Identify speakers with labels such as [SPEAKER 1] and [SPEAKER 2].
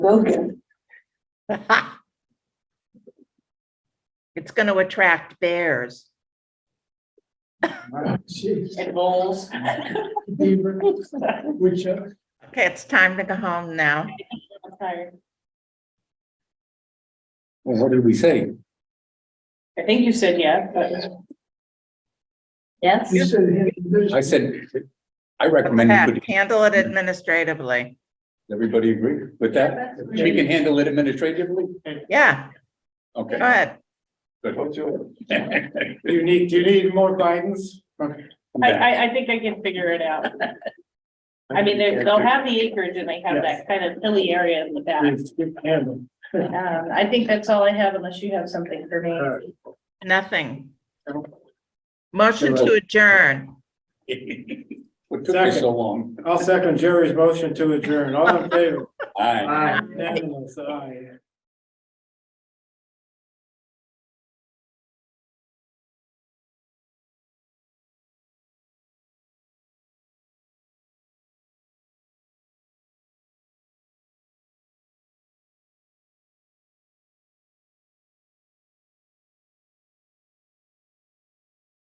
[SPEAKER 1] Okay.
[SPEAKER 2] It's gonna attract bears.
[SPEAKER 1] And bowls.
[SPEAKER 3] Which, uh,
[SPEAKER 2] Okay, it's time to go home now.
[SPEAKER 1] I
[SPEAKER 4] Well, what did we say?
[SPEAKER 1] think you said yeah, but. Yes?
[SPEAKER 3] you said.
[SPEAKER 4] I said, I recommend you
[SPEAKER 2] Pat,
[SPEAKER 4] could,
[SPEAKER 2] Handle it administratively.
[SPEAKER 4] everybody agree with that? She can handle it administratively?
[SPEAKER 2] Yeah, go
[SPEAKER 4] Okay.
[SPEAKER 2] ahead.
[SPEAKER 4] good.
[SPEAKER 3] Do you need, do you need more guidance?
[SPEAKER 1] I, I, I think I can figure it out. I mean, they- they'll have the acreage and they have that kind of hilly area in the back. Um, I think that's all I have unless you have something for me.
[SPEAKER 2] Nothing. Motion to adjourn.
[SPEAKER 4] What took you so long?
[SPEAKER 3] I'll second Jerry's motion to adjourn. All in favor?
[SPEAKER 4] Aye.
[SPEAKER 3] Unanimous, aye.